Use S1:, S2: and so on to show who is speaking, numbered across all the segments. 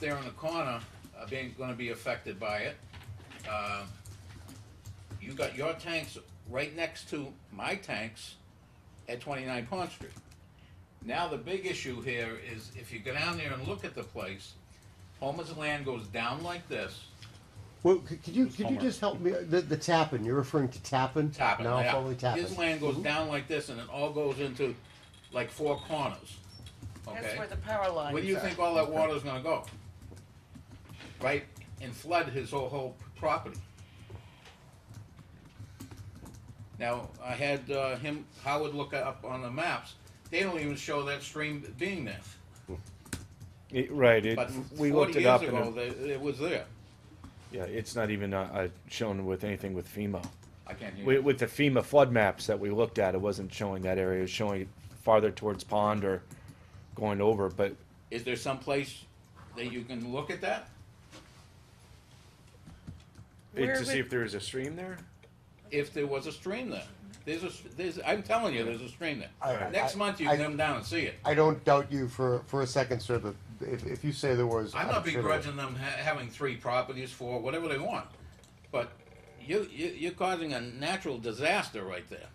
S1: there in the corner are being, gonna be affected by it. Um, You got your tanks right next to my tanks at twenty-nine Pond Street. Now, the big issue here is if you go down there and look at the place, Homer's land goes down like this,
S2: Well, c- could you
S3: It's
S2: could you
S3: Homer.
S2: just help me? The, the Tappan. You're referring to Tappan.
S1: tapping,
S2: Now Mm-hmm.
S1: yeah.
S2: formerly Tappan.
S1: His land goes down like this and it all goes into like four corners, okay?
S4: That's where the power lines are.
S1: Where do you think all that water's gonna go? Right, and flood his whole, whole property. Now, I had, uh, him, Howard look up on the maps, they don't even show that stream being there.
S3: It- right. It,
S1: But forty
S3: we looked it
S1: years
S3: up, and
S1: ago,
S3: it-
S1: they- it was there.
S3: yeah, it's not even uh, uh, shown with anything with FEMA.
S1: I can't hear
S3: With,
S1: you.
S3: with the FEMA flood maps that we looked at, it wasn't showing that area. It was showing it farther towards pond or going over. But
S1: Is there some place that you can look at that?
S3: it,
S4: Where
S3: to see
S4: would-
S3: if there is a stream there.
S1: If there was a stream there? There's a, there's, I'm telling you, there's a stream
S2: I-
S1: there. Next
S2: I-
S1: month, you
S2: I-
S1: can come down and see it.
S2: I don't doubt you for, for a second, sir. That if, if you say there was,
S1: I'm not
S2: sure there
S1: begrudging them ha- having three properties for whatever they want, but you, you, you're causing a natural disaster right there.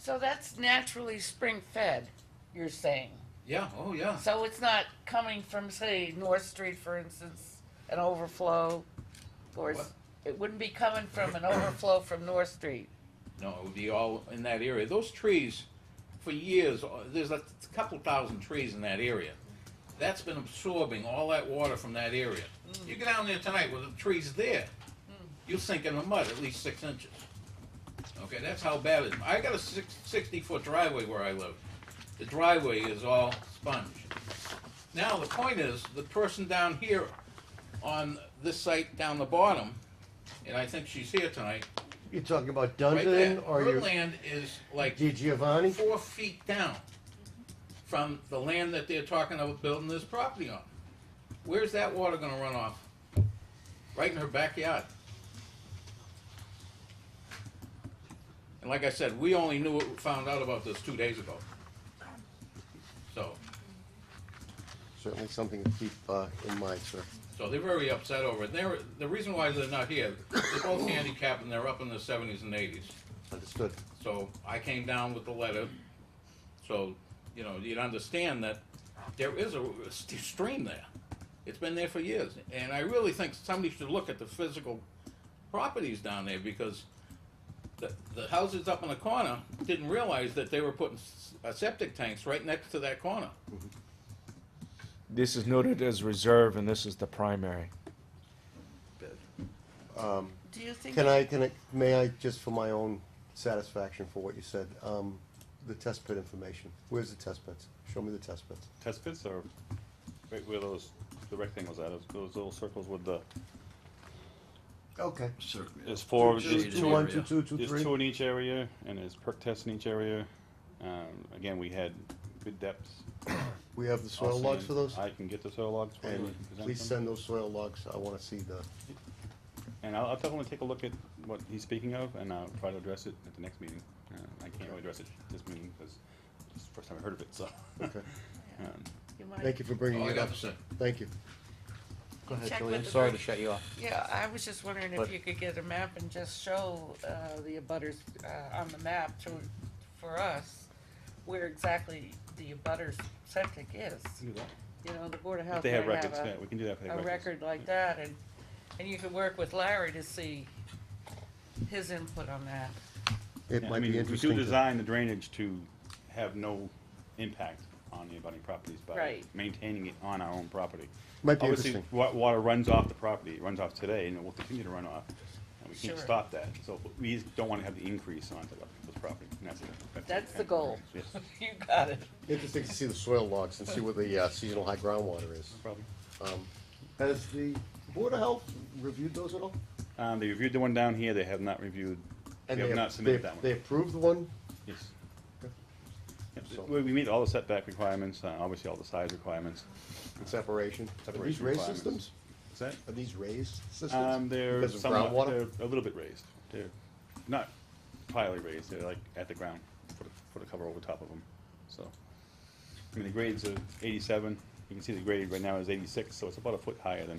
S4: So that's naturally spring fed, you're saying?
S1: Yeah, oh yeah,
S4: So it's not coming from, say, North Street, for instance, an overflow? Or it's-
S1: What?
S4: it wouldn't be coming from an overflow from North Street?
S1: no, it would be all in that area. Those trees, for years, uh, there's a couple thousand trees in that area. That's been absorbing all that water from that area. You get down there tonight with the trees there, you'll sink in the mud at least six inches. Okay, that's how bad it is. I got a six, sixty-foot driveway where I live. The driveway is all sponge. Now, the point is, the person down here on this site down the bottom, and I think she's here tonight,
S2: was. You're talking about
S1: right there,
S2: Dundon or
S1: her
S2: you
S1: land is like
S2: Di Giovanni?
S1: four feet down from the land that they're talking about building this property on. Where's that water gonna run off? Right in her backyard. And like I said, we only knew, found out about this two days ago. So,
S2: Certainly something to keep uh, in mind, sir.
S1: so they're very upset over it. They're, the reason why they're not here, they're both handicapped and they're up in their seventies and eighties.
S2: Understood.
S1: So I came down with the letter, so, you know, you'd understand that there is a st- stream there. It's been there for years, and I really think somebody should look at the physical properties down there, because the, the houses up in the corner didn't realize that they were putting s- uh, septic tanks right next to that corner.
S3: This is noted as reserve, and this is the primary.
S4: Do you think?
S2: Can I can I may I just for my own satisfaction for what you said? Um, the test pit information. Where's the test pits? Show me the test pits.
S5: Test pits are right where those, the rectangles at, those- those little circles with the,
S2: Okay.
S5: there's four,
S2: Two,
S5: there's
S2: two, one, two, two, two,
S5: there's
S2: three.
S5: two in each area, and there's perk tests in each area. Um, again, we had good depths.
S2: We have the soil
S5: I'll
S2: logs
S5: send-
S2: for those.
S5: I can get the soil logs for you.
S2: And
S5: and present
S2: please
S5: them.
S2: send those soil logs. I want to see the.
S5: And I'll, I'll definitely take a look at what he's speaking of, and I'll try to address it at the next meeting. Uh, I can't really address it this meeting, because it's the first time I heard of it, so.
S2: Okay.
S5: Um,
S4: you might-
S2: Thank you for bringing
S5: Oh,
S1: All I
S2: it up.
S1: got to say.
S2: Thank you. Go ahead,
S4: Check
S2: Julie.
S4: with the
S6: Sorry to
S4: bridge.
S6: shut you off.
S4: Yeah, I was just wondering if
S6: But-
S4: you could get a map and just show, uh, the abutters, uh, on the map to, for us, where exactly the abutters septic is.
S5: we can do that.
S4: You know, the Board of Health
S5: If they have
S4: might
S5: records,
S4: a-
S5: yeah, we can do that if they have
S4: a
S5: records.
S4: record like that, and, and you could work with Larry to see his input on that.
S2: It
S5: Yeah, I
S2: might
S5: mean,
S2: be
S5: We
S2: interesting.
S5: do
S2: to-
S5: design the drainage to have no impact on the abutting properties by
S4: Right.
S5: maintaining it on our own property.
S2: Might be
S5: Obviously,
S2: interesting.
S5: wa- water runs off the property, it runs off today, and it will continue to run off, and we can't
S4: Sure.
S5: stop that, so we just don't wanna have the increase onto the- those property, and that's it.
S4: That's the goal.
S5: Yes, no
S4: You got it.
S2: Interesting to see the soil logs and see where the uh, seasonal high groundwater is.
S5: problem.
S2: Um, Has the Board of Health reviewed those at all?
S5: Um, they reviewed the one down here, they have not reviewed, they
S2: And
S5: have not submitted
S2: they-
S5: that one.
S2: They approved the one?
S5: Yes.
S2: Okay.
S5: Yep,
S2: So-
S5: We, we meet all the setback requirements, uh, obviously all the size requirements.
S2: Separation. Are these
S5: Separation
S2: raised
S5: requirements.
S2: systems?
S5: Is that?
S2: Are these raised systems?
S5: Um, they're
S2: Because of
S5: somewhat,
S2: groundwater?
S5: they're a little bit raised. They're not highly raised. They're like at the ground. Put a, put a cover over top of them. So, I mean, the grades are 87, You can see the grade right now is eighty-six, so it's about a foot higher than